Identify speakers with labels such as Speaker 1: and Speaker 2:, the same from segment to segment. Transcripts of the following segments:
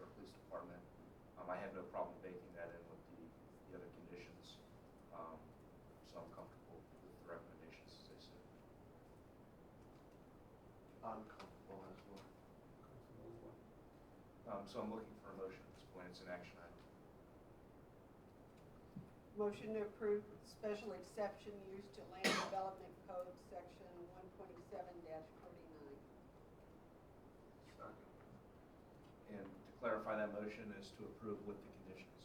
Speaker 1: um, have no problem baking that in with the, the other conditions. Um, So I'm comfortable with the recommendations as they sit.
Speaker 2: I'm comfortable as well.
Speaker 1: Um, So I'm looking for a motion at this point, it's an action item.
Speaker 3: Motion to approve special exception used to land development code section one twenty-seven forty-nine.
Speaker 2: Second.
Speaker 1: And to clarify, that motion is to approve with the conditions,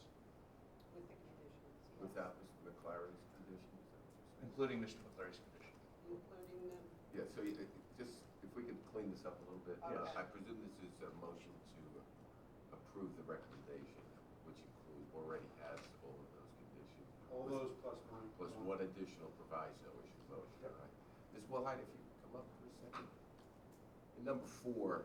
Speaker 3: With the conditions, yes.
Speaker 4: Without Mr. McClary's condition, is that what you're saying?
Speaker 1: including Mr. McClary's condition.
Speaker 3: Including the,
Speaker 4: Yeah, so you- it- just, if we can clean this up a little bit.
Speaker 3: Yes.
Speaker 4: I presume this is a motion to approve the recommendation, which includes, already has all of those conditions.
Speaker 2: All those plus one.
Speaker 4: Plus one additional proviso is your motion,
Speaker 2: Yep.
Speaker 4: right? Ms. Wellhite, if you could come up for a second. And number four,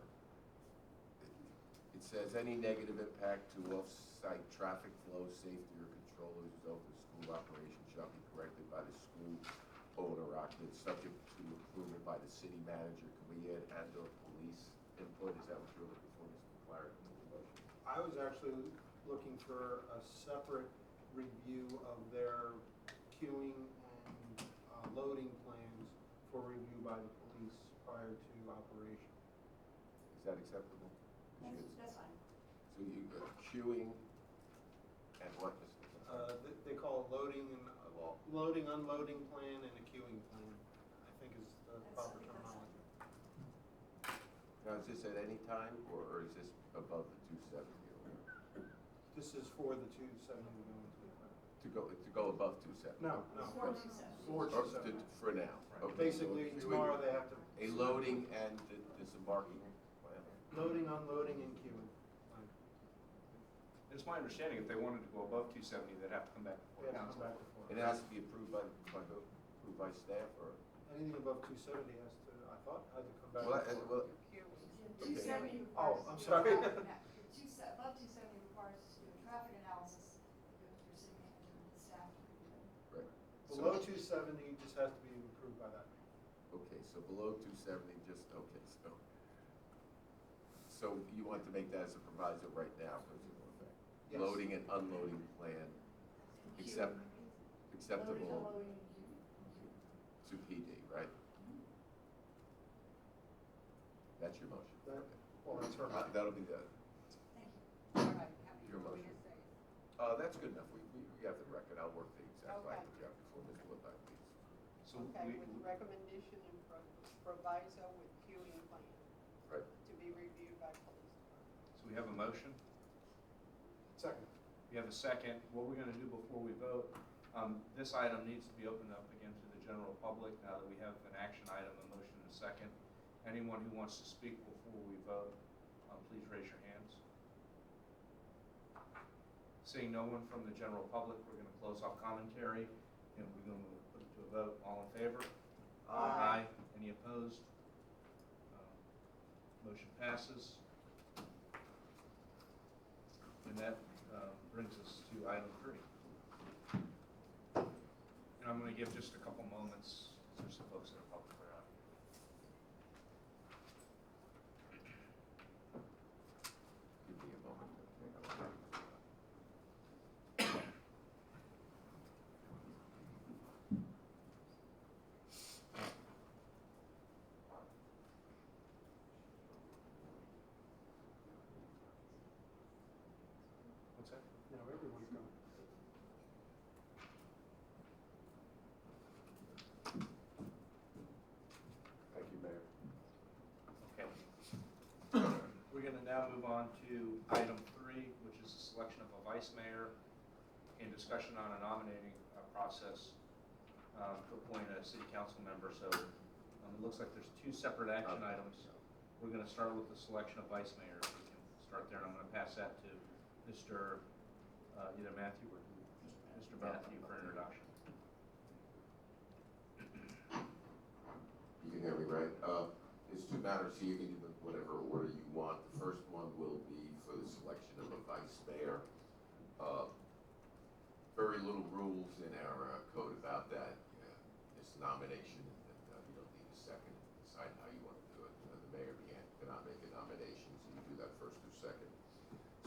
Speaker 4: it says, "Any negative impact to off-site traffic flow, safety, or control as a result of school operation shall be corrected by the school owner occupant, subject to improvement by the city manager." Can we add and/or police input? Is that what you're looking for, Mr. Clark, in the motion?
Speaker 2: I was actually looking for a separate review of their queuing and uh, loading plans for review by the police prior to operation.
Speaker 4: Is that acceptable?
Speaker 5: That's, that's fine.
Speaker 4: So you, uh, queuing and what, Mr.
Speaker 2: Uh,
Speaker 4: McClary?
Speaker 2: th- They call it loading and, uh, well, loading, unloading plan and a queuing plan, I think is the
Speaker 5: That's-
Speaker 2: proper
Speaker 5: I think that's-
Speaker 2: terminology.
Speaker 4: Now, is this at any time, or or is this above the 270?
Speaker 2: This is for the two seventy one twenty
Speaker 4: To go, to go above 270?
Speaker 2: No,
Speaker 5: Four
Speaker 2: no.
Speaker 5: two seven.
Speaker 2: Four
Speaker 4: Or
Speaker 2: two
Speaker 4: to-
Speaker 2: seven.
Speaker 4: For now?
Speaker 1: Right.
Speaker 4: Okay,
Speaker 2: Basically,
Speaker 4: so
Speaker 2: tomorrow they have to.
Speaker 4: A loading and di- disembarking, whatever.
Speaker 2: Loading, unloading, and queuing. plan.
Speaker 1: It's my understanding, if they wanted to go above 270, they'd have to come back
Speaker 2: They
Speaker 1: before
Speaker 2: have to
Speaker 1: council.
Speaker 2: come back and forth.
Speaker 4: And it has to be approved by, by who? Approved by staff, or?
Speaker 2: Anything above two seventy has to, I thought, had to come back.
Speaker 4: Well,
Speaker 2: and
Speaker 4: and-
Speaker 2: forth.
Speaker 4: well,
Speaker 5: Two seventy requires.
Speaker 2: Oh, I'm sorry.
Speaker 5: Two se- above two seventy requires us to do a traffic analysis, that goes through city manager and staff.
Speaker 4: Right. So-
Speaker 2: Below two seventy just has to be approved by that.
Speaker 4: Okay, so below 270, just, okay, so. So you want to make that as a proviso right now, principal effect?
Speaker 2: Yes.
Speaker 4: Loading and unloading plan Accept- acceptable
Speaker 5: Loading, unloading, queuing.
Speaker 4: to PD, right? That's your motion?
Speaker 2: That- Well, that's her.
Speaker 4: Uh, That'll be the,
Speaker 5: Thank you.
Speaker 3: all right, happy
Speaker 4: Your
Speaker 3: for me to
Speaker 4: motion.
Speaker 3: say.
Speaker 4: uh, that's good enough. We, we we have the record. I'll work the exact
Speaker 3: Okay.
Speaker 4: language out before Mr. Woodline leaves.
Speaker 1: So
Speaker 3: Okay,
Speaker 1: we-
Speaker 3: with
Speaker 1: we-
Speaker 3: recommendation and pro- proviso with queuing plan
Speaker 4: Right.
Speaker 3: to be reviewed by police department.
Speaker 1: so we have a motion,
Speaker 2: Second.
Speaker 1: we have a second. What we're going to do before we vote, um, this item needs to be opened up again to the general public now that we have an action item, a motion and a second. Anyone who wants to speak before we vote, um, please raise your hands. Seeing no one from the general public, we're going to close off commentary and we're going to put it to a vote. All in favor?
Speaker 3: Aye.
Speaker 1: Any opposed? Um, Motion passes. And that um, brings us to item three. And I'm going to give just a couple moments, 'cause there's some folks that are public that are out here.
Speaker 4: Give me a moment. okay?
Speaker 1: What's that?
Speaker 2: Now everyone's going.
Speaker 4: Thank you, Mayor.
Speaker 1: Okay. We're going to now move on to item three, which is the selection of a vice mayor and discussion on a nominating uh, process um, to appoint a city council member. So um, it looks like there's two separate action
Speaker 4: Okay.
Speaker 1: items. We're going to start with the selection of vice mayor. We can start there, and I'm going to pass that to Mr. uh, either Matthew or Mr. Matthew for introduction.
Speaker 4: You can hear me, right? Uh, There's two matters here, you can do them whatever order you want. The first one will be for the selection of a vice mayor. Uh, Very little rules in our uh, code about that. Yeah, It's nomination Uh,